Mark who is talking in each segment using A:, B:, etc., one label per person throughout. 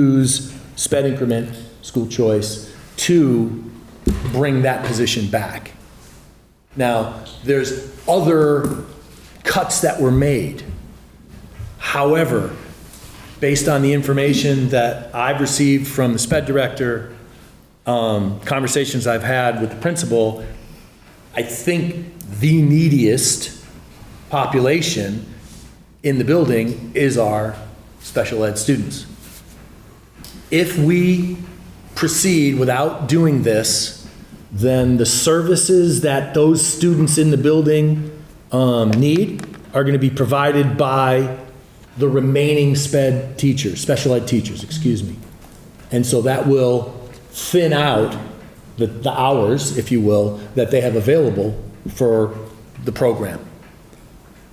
A: use sped increment, school choice, to bring that position back. Now, there's other cuts that were made. However, based on the information that I've received from the sped director, um, conversations I've had with the principal, I think the neediest population in the building is our special ed students. If we proceed without doing this, then the services that those students in the building um, need are going to be provided by the remaining sped teachers, special ed teachers, excuse me. And so that will thin out the, the hours, if you will, that they have available for the program.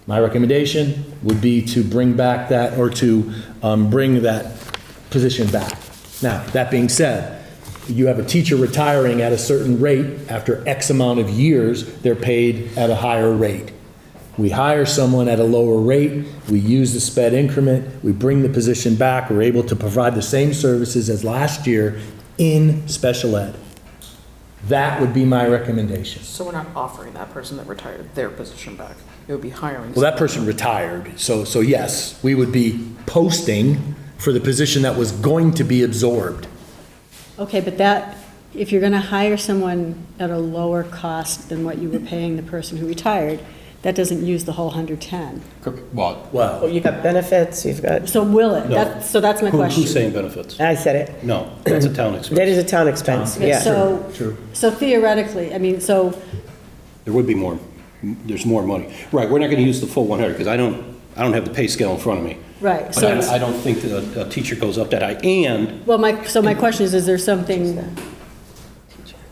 A: My recommendation would be to bring back that, or to um, bring that position back. Now, that being said, you have a teacher retiring at a certain rate, after X amount of years, they're paid at a higher rate. We hire someone at a lower rate, we use the sped increment, we bring the position back, we're able to provide the same services as last year in special ed. That would be my recommendation.
B: So we're not offering that person that retired their position back. It would be hiring.
A: Well, that person retired, so, so yes, we would be posting for the position that was going to be absorbed.
C: Okay, but that, if you're going to hire someone at a lower cost than what you were paying the person who retired, that doesn't use the whole 110.
D: Well,
E: Well,
A: Well,
E: you've Oh, got benefits, you've got,
C: So will it? That- So that's my
D: who-
C: question.
D: who's saying benefits?
E: I said it,
D: No, that's a town expense.
E: that is a town expense,
C: Okay,
E: yeah.
C: So, so theoretically, I mean, so,
D: There would be more, there's more money. Right, we're not going to use the full 100, because I don't, I don't have the pay scale in front of me.
C: right,
D: But I I
C: so,
D: don't think that a- a teacher goes up that high. And
C: well, my, so my question is, is there something,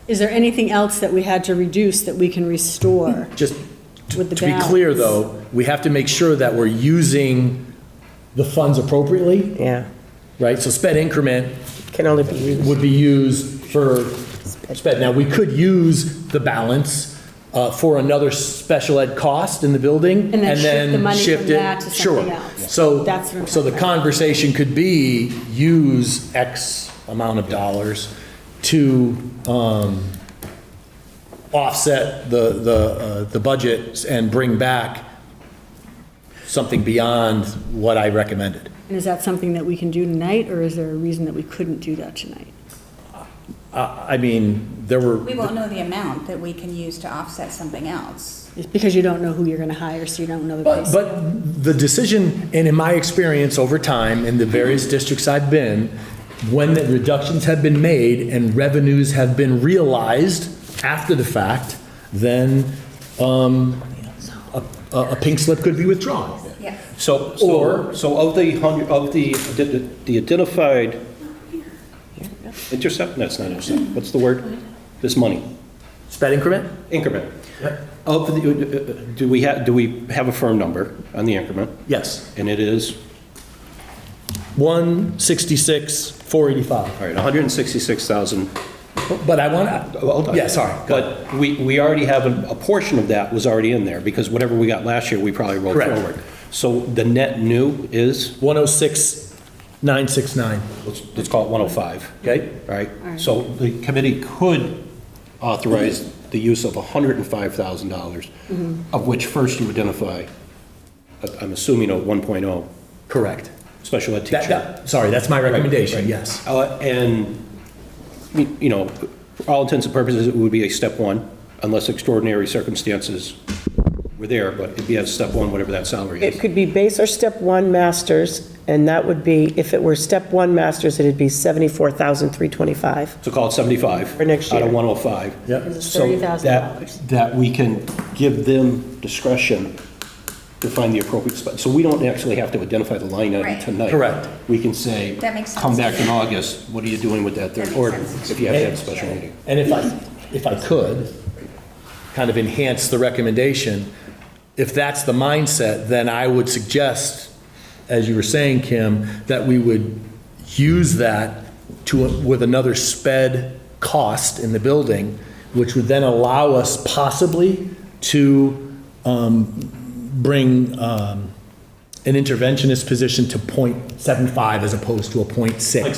C: is there anything else that we had to reduce that we can restore?
A: just to
C: With the
A: to be clear,
C: balance.
A: though, we have to make sure that we're using the funds appropriately,
E: Yeah,
A: right? So sped increment
E: can only be used.
A: would be used for sped. Now, we could use the balance uh, for another special ed cost in the building.
C: And then shift the money from
A: shift it-
C: that to something else.
A: Sure. So,
C: That's what I'm
A: so the
C: talking about.
A: conversation could be, use X amount of dollars to um, offset the, the, uh, the budgets and bring back something beyond what I recommended.
C: And is that something that we can do tonight, or is there a reason that we couldn't do that tonight?
A: I I mean, there were.
F: We won't know the amount that we can use to offset something else.
C: It's because you don't know who you're going to hire, so you don't know the
A: But,
C: price.
A: but the decision, and in my experience over time, in the various districts I've been, when the reductions have been made and revenues have been realized after the fact, then um, a, a a pink slip could be withdrawn.
F: Yeah.
D: so,
A: Or-
D: so, so of the 100, of the, the identified intercept, that's not intercept, what's the word? This money,
A: Sped increment?
D: increment. Of, the- uh, do we have, do we have a firm number on the increment?
A: Yes.
D: And it is?
A: 166, 485.
D: All right, 166,000.
A: But I want,
D: Well, hold
A: to.
D: on.
A: yeah, sorry. go ahead.
D: Oh, But we, we already have, a a portion of that was already in there, because whatever we got last year, we probably rolled
A: Correct.
D: forward. So the net new is,
A: 106, 969,
D: let's let's call it 105,
A: okay?
D: all right? So the committee could authorize the use of $105,000, of which first you identify, I- I'm assuming a 1.0
A: Correct.
D: special ed
A: That-
D: teacher.
A: that- Sorry, that's my recommendation, yes.
D: Uh, And, y- you know, for all intents and purposes, it would be a step one, unless extraordinary circumstances were there, but it'd be a step one, whatever that salary
E: It
D: is.
E: could be base or step one masters, and that would be, if it were step one masters, it'd be 74,325.
D: So call it 75.
E: For next
D: Out
E: year.
D: of 105.
A: Yep.
C: It's
D: So
C: $30,000.
D: that- That we can give them discretion to find the appropriate spot. So we don't actually have to identify the line item
F: Right.
D: tonight.
A: Correct.
D: We can say.
F: That makes sense.
D: Come back in August, what are you doing with that?
F: That
D: third
F: makes
D: Or
F: sense.
D: if you have to have a special meeting.
A: And if I, if I could, kind of enhance the recommendation, if that's the mindset, then I would suggest, as you were saying, Kim, that we would use that to, with another sped cost in the building, which would then allow us possibly to um, bring um, an interventionist position to .75 as opposed to a .6.